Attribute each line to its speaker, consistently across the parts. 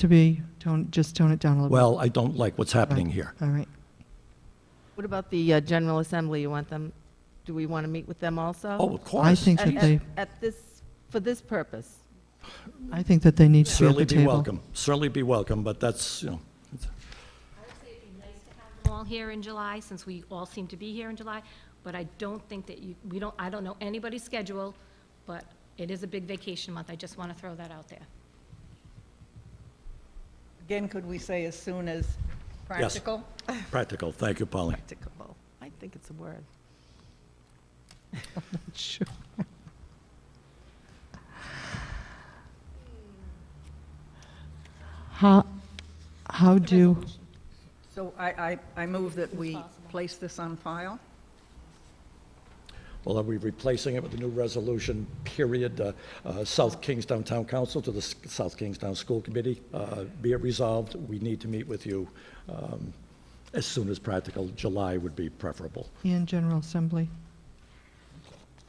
Speaker 1: to be? Tone, just tone it down a little
Speaker 2: Well, I don't like what's happening here.
Speaker 1: bit. All right.
Speaker 3: What about the uh, General Assembly? You want them, do we want to meet with them also?
Speaker 2: Oh, of course.
Speaker 1: I think
Speaker 3: At-
Speaker 1: that
Speaker 3: At
Speaker 1: they,
Speaker 3: at this, for this purpose?
Speaker 1: I think that they need to be at
Speaker 2: Certainly
Speaker 1: the
Speaker 2: be
Speaker 1: table.
Speaker 2: welcome. Certainly be welcome, but that's, you know, it's-
Speaker 4: I would say it'd be nice to have them all here in July, since we all seem to be here in July, but I don't think that you, we don't, I don't know anybody's schedule, but it is a big vacation month, I just want to throw that out there.
Speaker 5: Again, could we say as soon as practical?
Speaker 2: practical. Thank you, Polly.
Speaker 3: Practicable. I think it's a word.
Speaker 5: Sure.
Speaker 1: How, how do,
Speaker 5: So I, I, I move that we place this on file?
Speaker 2: Well, are we replacing it with a new resolution, period? Uh, uh, South Kingstown Town Council to the S- South Kingstown School Committee, uh, be it resolved, we need to meet with you um, as soon as practical. July would be preferable.
Speaker 1: and General Assembly?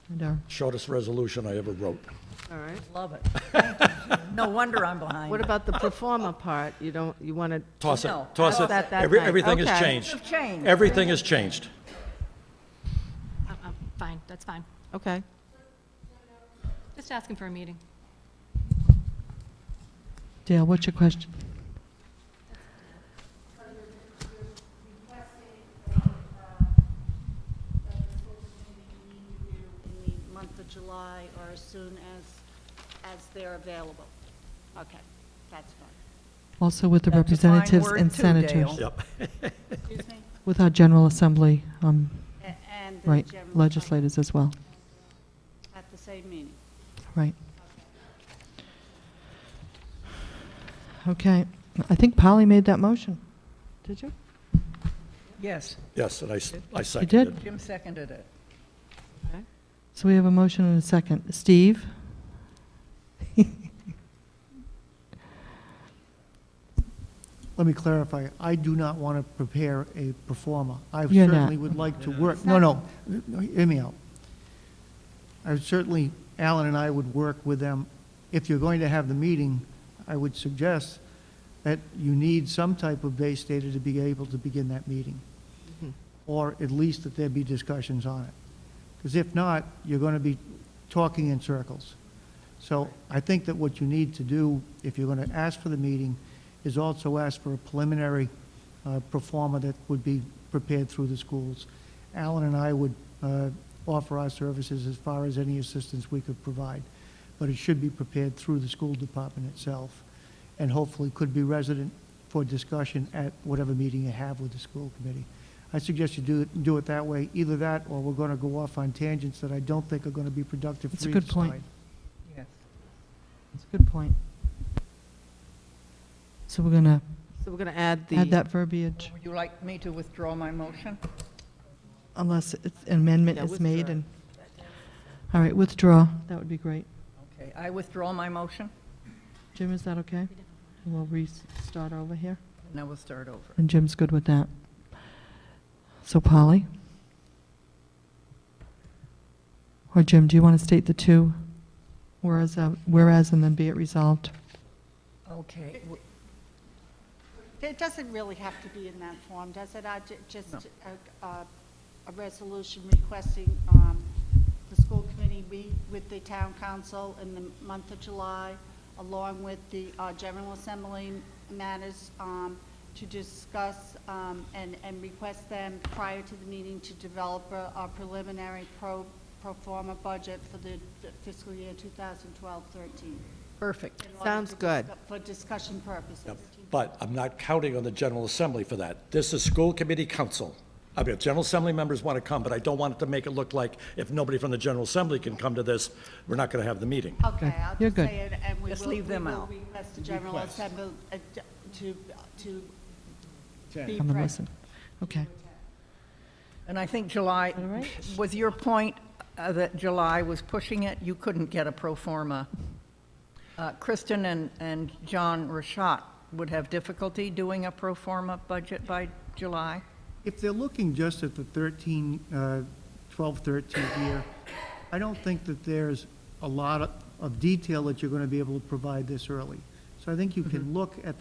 Speaker 1: And our,
Speaker 2: Shortest resolution I ever wrote.
Speaker 3: All right.
Speaker 5: Love it. No wonder I'm behind.
Speaker 3: What about the performer part? You don't, you want to?
Speaker 2: Toss it,
Speaker 5: No,
Speaker 2: toss
Speaker 3: I
Speaker 2: it.
Speaker 3: thought that that
Speaker 2: Every-
Speaker 3: night.
Speaker 2: Everything has
Speaker 3: Okay.
Speaker 2: changed.
Speaker 5: It's changed.
Speaker 2: Everything has changed.
Speaker 4: I'm, I'm Uh, fine, that's fine.
Speaker 3: Okay.
Speaker 4: Just asking for a meeting.
Speaker 1: Dale, what's your question?
Speaker 6: uh, in the month of July or as soon as, as they're available. Okay, that's fine.
Speaker 1: Also with the
Speaker 5: That's a fine
Speaker 1: representatives
Speaker 5: word
Speaker 1: and
Speaker 5: too, Dale.
Speaker 1: senators?
Speaker 2: Yep.
Speaker 6: Excuse me?
Speaker 1: With our General Assembly, um,
Speaker 6: A- And the
Speaker 1: right,
Speaker 6: general-
Speaker 1: legislators as well,
Speaker 6: At the same meeting.
Speaker 1: right. Okay, I think Polly made that motion. Did you?
Speaker 5: Yes,
Speaker 2: Yes, and I s- I seconded
Speaker 1: did.
Speaker 2: it.
Speaker 5: Jim seconded it.
Speaker 1: So we have a motion and a second. Steve?
Speaker 7: Let me clarify, I do not want to prepare a performer. I
Speaker 1: You're not.
Speaker 7: certainly would like to work, no, no, no, hear me out. I would certainly, Alan and I would work with them. If you're going to have the meeting, I would suggest that you need some type of base data to be able to begin that meeting, or at least that there be discussions on it. Because if not, you're going to be talking in circles. So I think that what you need to do, if you're going to ask for the meeting, is also ask for a preliminary uh, performer that would be prepared through the schools. Alan and I would uh, offer our services as far as any assistance we could provide, but it should be prepared through the school department itself, and hopefully could be resident for discussion at whatever meeting you have with the school committee. I suggest you do it, do it that way, either that, or we're going to go off on tangents that I don't think are going to be productive
Speaker 1: That's
Speaker 7: for
Speaker 1: a
Speaker 7: either
Speaker 1: good point.
Speaker 7: side.
Speaker 5: Yes.
Speaker 1: That's a good point. So we're going to
Speaker 3: So we're going to add the.
Speaker 1: add that verbiage
Speaker 5: Would you like me to withdraw my motion?
Speaker 1: unless it's- an amendment
Speaker 3: Yeah,
Speaker 1: is made
Speaker 3: withdraw.
Speaker 1: and, all right, withdraw. That would be great.
Speaker 5: Okay, I withdraw my motion,
Speaker 1: Jim, is that okay? We'll restart over here.
Speaker 5: and then we'll start over.
Speaker 1: And Jim's good with that. So Polly? Or Jim, do you want to state the two? Whereas, uh, whereas and then be it resolved?
Speaker 5: Okay, w-
Speaker 6: It doesn't really have to be in that form, does it? I ju- just,
Speaker 5: No.
Speaker 6: a, a- a resolution requesting, um, the school committee meet with the town council in the month of July, along with the, uh, general assembly matters, um, to discuss, um, and, and request them prior to the meeting to develop a a preliminary pro, pro forma budget for the fiscal year 2012-13.
Speaker 5: perfect.
Speaker 6: in order
Speaker 3: Sounds
Speaker 6: to
Speaker 3: good.
Speaker 6: discuss- For discussion purposes.
Speaker 2: Yep. But I'm not counting on the General Assembly for that. This is school committee council. I mean, if General Assembly members want to come, but I don't want it to make it look like if nobody from the General Assembly can come to this, we're not going to have the meeting.
Speaker 6: Okay, I'll
Speaker 1: You're
Speaker 6: just
Speaker 1: good.
Speaker 6: say it, and we will,
Speaker 5: Just
Speaker 6: we
Speaker 5: leave them
Speaker 6: will
Speaker 5: out.
Speaker 6: request the General Assembly uh, to, to be
Speaker 1: I'm going to
Speaker 6: present.
Speaker 1: listen. Okay.
Speaker 5: And I think July, was your point uh, that July was pushing it? You couldn't get a pro forma. Uh, Kristen and, and John Rashat would have difficulty doing a pro forma budget by July?
Speaker 7: If they're looking just at the 13, uh, 12, 13 year, I don't think that there's a lot of- of detail that you're going to be able to provide this early. So I think you can look at the